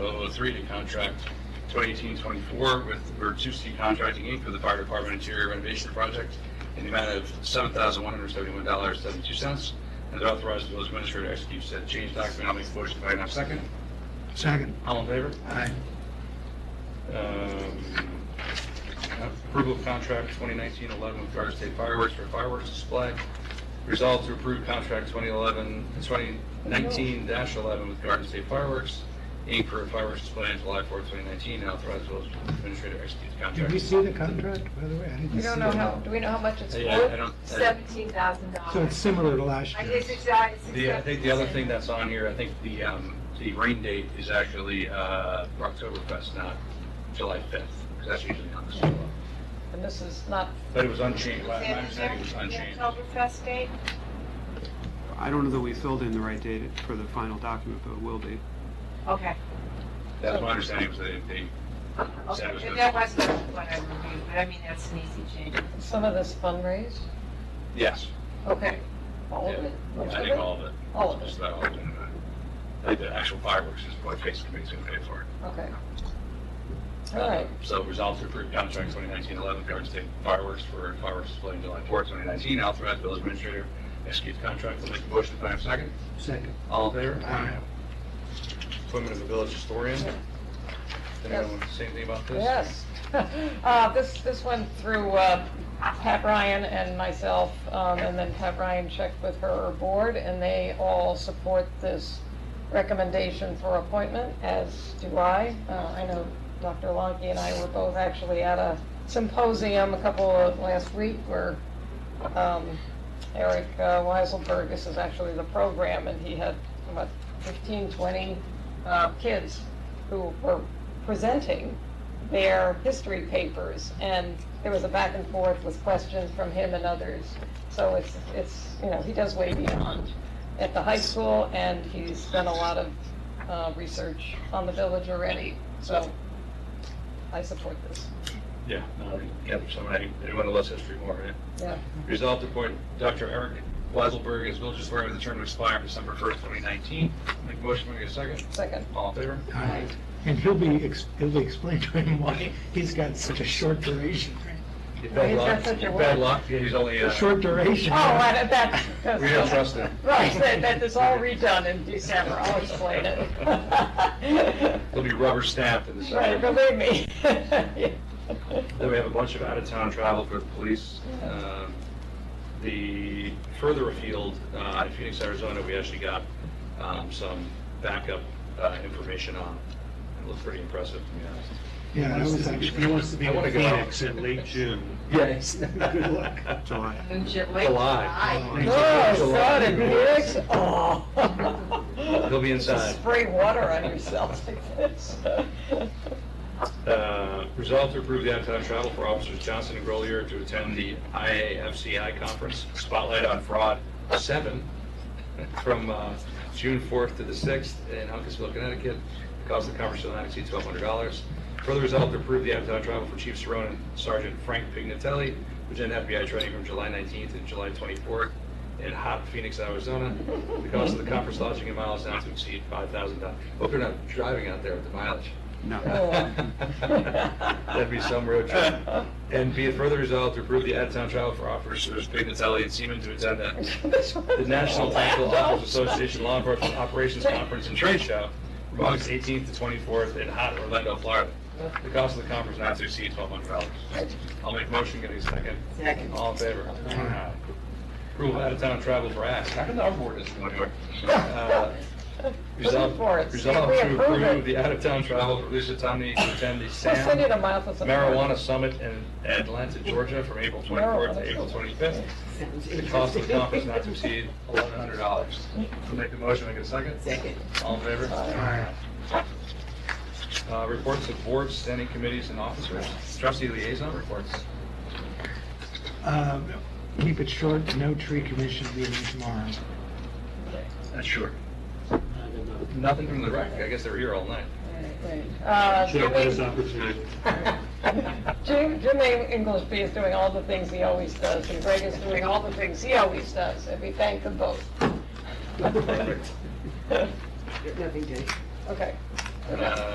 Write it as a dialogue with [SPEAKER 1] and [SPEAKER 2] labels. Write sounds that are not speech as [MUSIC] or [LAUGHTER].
[SPEAKER 1] oh three to contract 2018-24 with Virtusi Contracting Inc. for the Fire Department Interior Renovation Project in the amount of $7,171.72, and to authorize the village administrator to execute said change document. I'll make a motion if I can have a second.
[SPEAKER 2] Second.
[SPEAKER 1] All in favor?
[SPEAKER 2] Aye.
[SPEAKER 1] Um, Approval of contract 2019-11 with Garden State Fireworks for fireworks display. Resolved to approve contract 2011, 2019-11 with Garden State Fireworks, Inc. for fireworks display on July 4, 2019, and authorize village administrator to execute the
[SPEAKER 2] Did we
[SPEAKER 1] contract.
[SPEAKER 2] see the contract, by the way? I didn't
[SPEAKER 3] We
[SPEAKER 2] see
[SPEAKER 3] don't know
[SPEAKER 2] it.
[SPEAKER 3] how, do we know how much it's
[SPEAKER 1] Hey, I- I
[SPEAKER 3] worth?
[SPEAKER 1] don't- I-
[SPEAKER 4] Seventeen thousand
[SPEAKER 2] So it's
[SPEAKER 4] dollars.
[SPEAKER 2] similar to last
[SPEAKER 4] I
[SPEAKER 2] year.
[SPEAKER 4] guess it's, uh, it's
[SPEAKER 1] The, I think the other thing
[SPEAKER 4] acceptance.
[SPEAKER 1] that's on here, I think the, um, the rain date is actually uh, Oktoberfest, not July 5th, because that's usually on the schedule.
[SPEAKER 3] And this is not,
[SPEAKER 1] But it was unchanged, my my
[SPEAKER 4] Is that
[SPEAKER 1] understanding
[SPEAKER 4] in
[SPEAKER 1] was
[SPEAKER 4] there?
[SPEAKER 1] unchanged.
[SPEAKER 4] The Oktoberfest date?
[SPEAKER 5] I don't know that we filled in the right date for the final document, but it will be.
[SPEAKER 4] Okay.
[SPEAKER 1] That's my understanding was that they- they
[SPEAKER 4] Okay,
[SPEAKER 1] Saturday.
[SPEAKER 4] and that was not what I reviewed, but I mean, that's an easy change.
[SPEAKER 3] some of this fundraised?
[SPEAKER 1] Yes.
[SPEAKER 3] Okay. All of
[SPEAKER 1] Yeah.
[SPEAKER 3] it? Most
[SPEAKER 1] I
[SPEAKER 3] of
[SPEAKER 1] think
[SPEAKER 3] it?
[SPEAKER 1] all of it.
[SPEAKER 3] All of
[SPEAKER 1] Just
[SPEAKER 3] it,
[SPEAKER 1] about all of it. I think the actual fireworks is what face committee's gonna pay for.
[SPEAKER 3] okay. All right,
[SPEAKER 1] So resolve to approve contract 2019-11, Garden State Fireworks for fireworks display on July 4th, 2019. Authorize village administrator execute the contract. I'll make a motion if I have a second.
[SPEAKER 2] Second.
[SPEAKER 1] All in favor?
[SPEAKER 2] Aye.
[SPEAKER 1] Appointment of the village historian. Anyone want to say anything about this?
[SPEAKER 3] yes. [LAUGHS] Uh, This, this went through uh, Pat Ryan and myself, um, and then Pat Ryan checked with her board, and they all support this recommendation for appointment, as do I. Uh, I know Dr. Lonke and I were both actually at a symposium a couple of last week where um, Eric uh, Weiselberg, this is actually the program, and he had about 15, 20 uh, kids who were presenting their history papers, and there was a back and forth with questions from him and others. So it's, it's, you know, he does way beyond at the high school, and he's done a lot of uh, research on the village already, so I support this.
[SPEAKER 1] Yeah. no, Yep, somebody, anyone who loves history more, right?
[SPEAKER 3] Yeah,
[SPEAKER 1] Resolved to appoint Dr. Eric Weiselberg as village historian with a term to expire December 1st, 2019. Make a motion, we get a second.
[SPEAKER 3] second.
[SPEAKER 1] [LAUGHS] All in favor?
[SPEAKER 2] Aye. And he'll be, ex- it'll be explained to him why he's got such a short duration.
[SPEAKER 1] Your
[SPEAKER 3] Why
[SPEAKER 1] bad
[SPEAKER 3] is that
[SPEAKER 1] luck.
[SPEAKER 3] such a
[SPEAKER 1] Your
[SPEAKER 3] word?
[SPEAKER 1] bad luck. Yeah, He's only, uh,
[SPEAKER 2] Short
[SPEAKER 3] Oh,
[SPEAKER 2] duration.
[SPEAKER 3] I- that, that's.
[SPEAKER 1] we don't trust him.
[SPEAKER 3] Right, that, that is all redone in December, I'll explain it.
[SPEAKER 1] [LAUGHS] He'll be rubber stamped in the
[SPEAKER 3] Right,
[SPEAKER 1] summer. [LAUGHS]
[SPEAKER 3] believe me.
[SPEAKER 1] Then we have a bunch of out-of-town travel for the police. Um, The further afield, uh, in Phoenix, Arizona, we actually got um, some backup uh, information on. It looked pretty impressive, to be honest.
[SPEAKER 2] Yeah, I was actually. He wants to
[SPEAKER 1] I wanna go.
[SPEAKER 2] in late June.
[SPEAKER 1] Yes.
[SPEAKER 2] [LAUGHS] Good luck.
[SPEAKER 5] July.
[SPEAKER 4] Moonshot Lake.
[SPEAKER 1] July.
[SPEAKER 3] Oh,
[SPEAKER 4] July.
[SPEAKER 3] so did Felix, oh.
[SPEAKER 1] He'll be inside.
[SPEAKER 3] Spray water on yourself like this. [LAUGHS]
[SPEAKER 1] Uh, Resolve to approve the out-of-town travel for officers Johnson and Grolier to attend the IAFCI conference Spotlight on Fraud 7 from uh, June 4th to the 6th in Hunkinsville, Connecticut. The cost of the conference will not exceed $1,200. Further resolve to approve the out-of-town travel for Chief Saron and Sergeant Frank Pignatelli, which attend FBI training from July 19th to July 24th in hot Phoenix, Arizona. The cost of the conference lodging and mileage not to exceed $5,000. Hope you're not driving out there with the mileage. Oh,
[SPEAKER 5] No.
[SPEAKER 1] um, That'd be some road trip. And be it further resolved to approve the out-of-town travel for officers Pignatelli and Seaman to attend the the National Tactical Doctors Association
[SPEAKER 3] [LAUGHS]
[SPEAKER 1] Law Enforcement Operations Conference and Trade Show from August 18th to 24th in hot Orlando, Florida. The cost of the conference not to exceed $1,200. I'll make motion, give me a second.
[SPEAKER 4] Second.
[SPEAKER 1] All in favor? Aye. Approval of out-of-town travel for acts. How come our board doesn't go anywhere? Uh,
[SPEAKER 3] Looking for it.
[SPEAKER 1] Resolve, resolve
[SPEAKER 3] We
[SPEAKER 1] to
[SPEAKER 3] approve it.
[SPEAKER 1] approve the out-of-town travel for Lisa
[SPEAKER 3] [SIGHS]
[SPEAKER 1] Tomney to attend the
[SPEAKER 3] We'll
[SPEAKER 1] SAM
[SPEAKER 3] send you to Martha's. and-
[SPEAKER 1] Marijuana Summit in Atlanta, Georgia, from April 24th to April 25th. The cost of the conference not to exceed $1,100. Make the motion, make it a second. Second. All in favor?
[SPEAKER 2] Aye.
[SPEAKER 1] Uh, Reports of boards, standing committees, and officers. Trustee liaison reports.
[SPEAKER 2] Um, Keep it short, no tree commission meeting tomorrow.
[SPEAKER 1] Sure. Nothing from the rec, I guess they were here all night.
[SPEAKER 3] Uh,
[SPEAKER 6] Should have had this
[SPEAKER 3] Jimmy-
[SPEAKER 6] opportunity.
[SPEAKER 3] [LAUGHS] Jim, Jim Englishby is doing all the things he always does, and Greg is doing all the things he always does, and we thank them both. [LAUGHS]
[SPEAKER 1] Perfect.
[SPEAKER 3] Okay.
[SPEAKER 1] Uh,